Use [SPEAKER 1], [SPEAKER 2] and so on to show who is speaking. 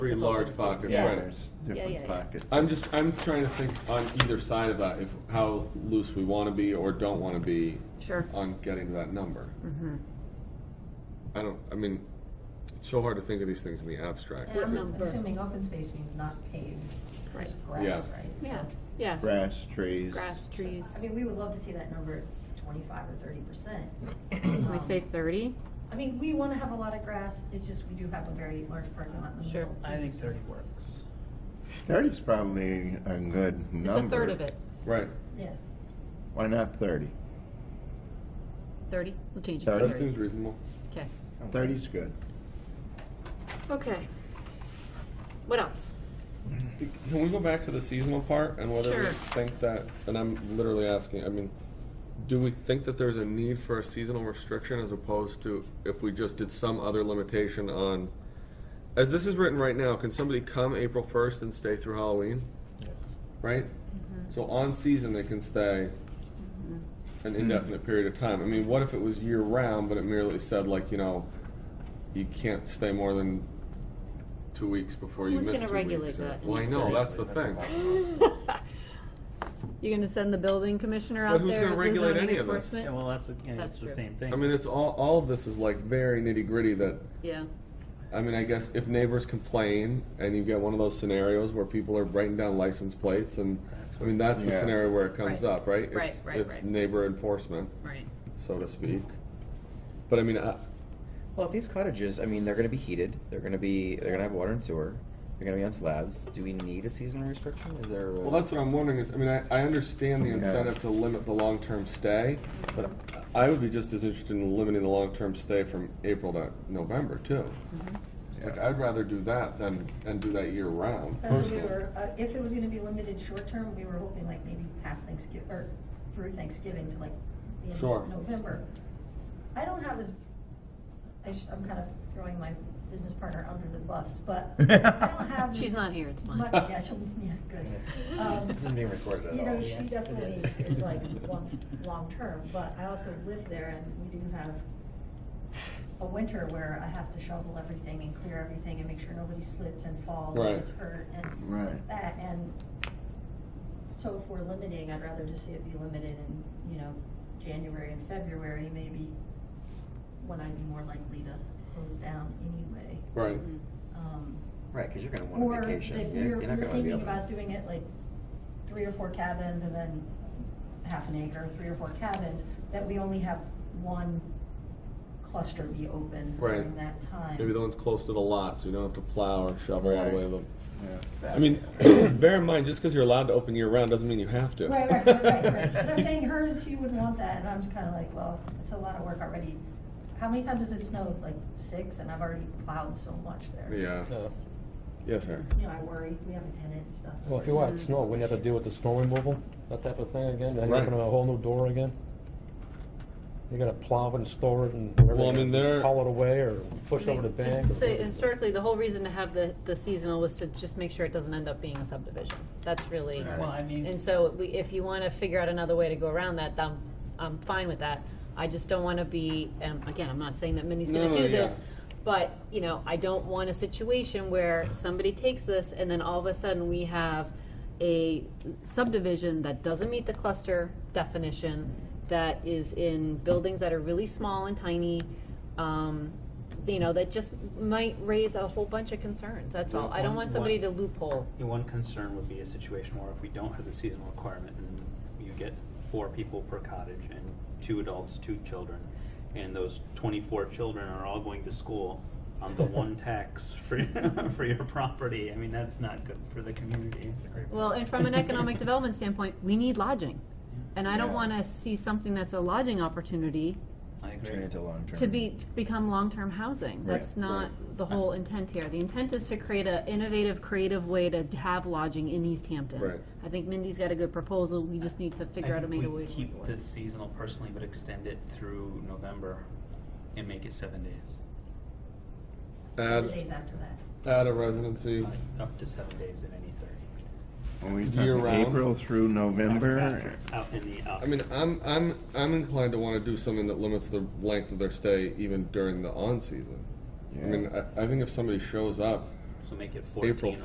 [SPEAKER 1] Three large pockets,
[SPEAKER 2] Yeah.
[SPEAKER 1] right.
[SPEAKER 3] There's
[SPEAKER 2] Yeah, yeah,
[SPEAKER 3] different
[SPEAKER 2] yeah.
[SPEAKER 3] pockets.
[SPEAKER 1] I'm just, I'm trying to think on either side of that, if, how loose we want to be or don't want to be
[SPEAKER 2] Sure.
[SPEAKER 1] on getting to that number.
[SPEAKER 2] Mm-hmm.
[SPEAKER 1] I don't, I mean, it's so hard to think of these things in the abstract.
[SPEAKER 2] What
[SPEAKER 1] too.
[SPEAKER 2] number?
[SPEAKER 4] Assuming open space means not paved,
[SPEAKER 2] Right.
[SPEAKER 4] just grass,
[SPEAKER 1] Yeah.
[SPEAKER 4] right?
[SPEAKER 2] Yeah, yeah.
[SPEAKER 3] Grass, trees.
[SPEAKER 2] Grass, trees.
[SPEAKER 4] I mean, we would love to see that number twenty-five or thirty percent. Um,
[SPEAKER 2] Can we say thirty?
[SPEAKER 4] I mean, we wanna have a lot of grass, it's just we do have a very large parking lot in the
[SPEAKER 2] Sure.
[SPEAKER 4] middle. too,
[SPEAKER 5] I think
[SPEAKER 4] so-
[SPEAKER 5] thirty works.
[SPEAKER 3] Thirty's probably a good
[SPEAKER 2] It's
[SPEAKER 3] number.
[SPEAKER 2] a third of it.
[SPEAKER 1] Right,
[SPEAKER 4] Yeah.
[SPEAKER 3] Why not thirty?
[SPEAKER 2] Thirty? We'll change it to
[SPEAKER 3] Thirty.
[SPEAKER 1] that
[SPEAKER 2] thirty.
[SPEAKER 1] seems reasonable.
[SPEAKER 2] Okay.
[SPEAKER 3] Thirty's good.
[SPEAKER 2] Okay. What else?
[SPEAKER 1] Can we go back to the seasonal part and whether we
[SPEAKER 2] Sure.
[SPEAKER 1] think that, and I'm literally asking, I mean, do we think that there's a need for a seasonal restriction as opposed to if we just did some other limitation on, as this is written right now, can somebody come April first and stay through Halloween? Right?
[SPEAKER 2] Mm-hmm.
[SPEAKER 1] So on season, they can stay an indefinite period of time. I mean, what if it was year round, but it merely said like, you know, you can't stay more than two weeks before you
[SPEAKER 2] Who's
[SPEAKER 1] miss two weeks.
[SPEAKER 2] gonna regulate
[SPEAKER 1] or-
[SPEAKER 2] that?
[SPEAKER 1] Well, I know, that's the
[SPEAKER 6] Seriously,
[SPEAKER 1] thing.
[SPEAKER 6] that's a
[SPEAKER 2] You're gonna send the building commissioner
[SPEAKER 1] But
[SPEAKER 2] out there?
[SPEAKER 1] who's gonna
[SPEAKER 2] as the
[SPEAKER 1] regulate
[SPEAKER 2] zoning
[SPEAKER 1] any of this?
[SPEAKER 2] enforcement?
[SPEAKER 5] Yeah, well, that's, again,
[SPEAKER 2] That's
[SPEAKER 5] it's the
[SPEAKER 2] true.
[SPEAKER 5] same thing.
[SPEAKER 1] I mean, it's all, all of this is like very nitty gritty that,
[SPEAKER 2] Yeah,
[SPEAKER 1] I mean, I guess if neighbors complain and you get one of those scenarios where people are writing down license plates and, I mean, that's the
[SPEAKER 3] Yeah.
[SPEAKER 1] scenario where it comes
[SPEAKER 2] Right.
[SPEAKER 1] up, right?
[SPEAKER 2] Right,
[SPEAKER 1] It's-
[SPEAKER 2] right,
[SPEAKER 1] It's
[SPEAKER 2] right.
[SPEAKER 1] neighbor enforcement,
[SPEAKER 2] right.
[SPEAKER 1] so to speak. But I mean, I,
[SPEAKER 6] Well, if these cottages, I mean, they're going to be heated. They're going to be. They're going to have water and sewer. They're going to be on slabs. Do we need a seasonal restriction? Is there? A,
[SPEAKER 1] Well, that's what I'm wondering is, I mean, I, I understand the
[SPEAKER 3] Yeah.
[SPEAKER 1] incentive to limit the long-term stay, but I would be just as interested in limiting the long-term stay from April to November too. Like, I'd rather do that than, and do that year-round
[SPEAKER 4] Uh, we
[SPEAKER 1] personally.
[SPEAKER 4] were, uh, if it was gonna be limited short-term, we were hoping like maybe past Thanksgiving, or through Thanksgiving to like the end
[SPEAKER 1] Sure.
[SPEAKER 4] of November. I don't have as, I sh- I'm kind of throwing my business partner under the bus, but I don't have.
[SPEAKER 2] She's
[SPEAKER 4] as
[SPEAKER 2] not here, it's fine.
[SPEAKER 4] much- Yeah, she'll, yeah, good. Um,
[SPEAKER 6] This isn't being recorded at
[SPEAKER 4] You know,
[SPEAKER 6] all.
[SPEAKER 4] she
[SPEAKER 5] Yes, it
[SPEAKER 4] definitely
[SPEAKER 5] is.
[SPEAKER 4] is like wants long-term, but I also live there and we do have a winter where I have to shovel everything and clear everything and make sure nobody slips and falls
[SPEAKER 1] Right.
[SPEAKER 4] and gets hurt and
[SPEAKER 3] Right.
[SPEAKER 4] that, and so if we're limiting, I'd rather just see it be limited in, you know, January and February maybe, when I'd be more likely to close down anyway.
[SPEAKER 1] Right,
[SPEAKER 2] Mm-hmm.
[SPEAKER 4] Um,
[SPEAKER 6] right, because you're going to want
[SPEAKER 4] Or
[SPEAKER 6] a
[SPEAKER 4] if
[SPEAKER 6] vacation.
[SPEAKER 4] you're,
[SPEAKER 6] You're, you're not
[SPEAKER 4] you're
[SPEAKER 6] going to be
[SPEAKER 4] thinking
[SPEAKER 6] able.
[SPEAKER 4] about doing it like three or four cabins and then half an acre, three or four cabins, that we only have one cluster be open during
[SPEAKER 1] Right.
[SPEAKER 4] that time.
[SPEAKER 1] maybe the one's close to the lot, so you don't have to plow or shovel all the way to the.
[SPEAKER 3] Yeah.
[SPEAKER 1] I mean, bear in mind, just because you're allowed to open year-round doesn't mean you have to.
[SPEAKER 4] Right, right, right, right, right. But I'm saying hers, she would want that, and I'm just kinda like, well, it's a lot of work already. How many times has it snowed? Like six, and I've already plowed so much there.
[SPEAKER 1] Yeah, yes, sir.
[SPEAKER 4] You know, I worry, we have a tenant and stuff.
[SPEAKER 7] Well, if you want snow, wouldn't you have to deal with the snow removal, that type of thing again? Then you
[SPEAKER 1] Right.
[SPEAKER 7] open a whole new door again? You're gonna plow it and store it and wherever
[SPEAKER 1] Well, I
[SPEAKER 7] you
[SPEAKER 1] mean, there-
[SPEAKER 7] haul it away or push over the
[SPEAKER 2] Just
[SPEAKER 7] bank?
[SPEAKER 2] to say, historically, the whole reason to have the, the seasonal was to just make sure it doesn't end up being a subdivision. That's really,
[SPEAKER 5] Well, I mean-
[SPEAKER 2] and so we, if you wanna figure out another way to go around that, I'm, I'm fine with that. I just don't wanna be, and again, I'm not saying that Minnie's
[SPEAKER 1] No,
[SPEAKER 2] gonna
[SPEAKER 1] no,
[SPEAKER 2] do this,
[SPEAKER 1] yeah.
[SPEAKER 2] but, you know, I don't want a situation where somebody takes this and then all of a sudden we have a subdivision that doesn't meet the cluster definition, that is in buildings that are really small and tiny, um, you know, that just might raise a whole bunch of concerns, that's all. I don't want somebody to loophole.
[SPEAKER 5] The one concern would be a situation where if we don't have the seasonal requirement and you get four people per cottage and two adults, two children, and those twenty-four children are all going to school on the one tax for, for your property, I mean, that's not good for the community.
[SPEAKER 2] Well, and from an economic development standpoint, we need lodging. And I don't
[SPEAKER 3] Yeah.
[SPEAKER 2] wanna see something that's a lodging opportunity
[SPEAKER 5] I
[SPEAKER 6] Turn it
[SPEAKER 5] agree.
[SPEAKER 6] into long term.
[SPEAKER 2] to be, to become long-term housing. That's not the whole intent here. The intent is to create a innovative, creative way to have lodging in East Hampton.
[SPEAKER 1] Right.
[SPEAKER 2] I think Mindy's got a good proposal, we just need to figure out a made a way to. make it
[SPEAKER 5] Keep
[SPEAKER 2] work.
[SPEAKER 5] this seasonal personally, but extend it through November and make it seven days,
[SPEAKER 4] Two
[SPEAKER 1] Add,
[SPEAKER 4] days after that.
[SPEAKER 1] add a residency.
[SPEAKER 5] up to seven days in any thirty.
[SPEAKER 3] Are we
[SPEAKER 1] Year
[SPEAKER 3] talking
[SPEAKER 1] round.
[SPEAKER 3] April through November?
[SPEAKER 5] Out in the. out-
[SPEAKER 1] I mean, I'm I'm I'm inclined to want to do something that limits the length of their stay even during the on season. I mean, I, I think if somebody shows up
[SPEAKER 8] so make it fourteen
[SPEAKER 5] April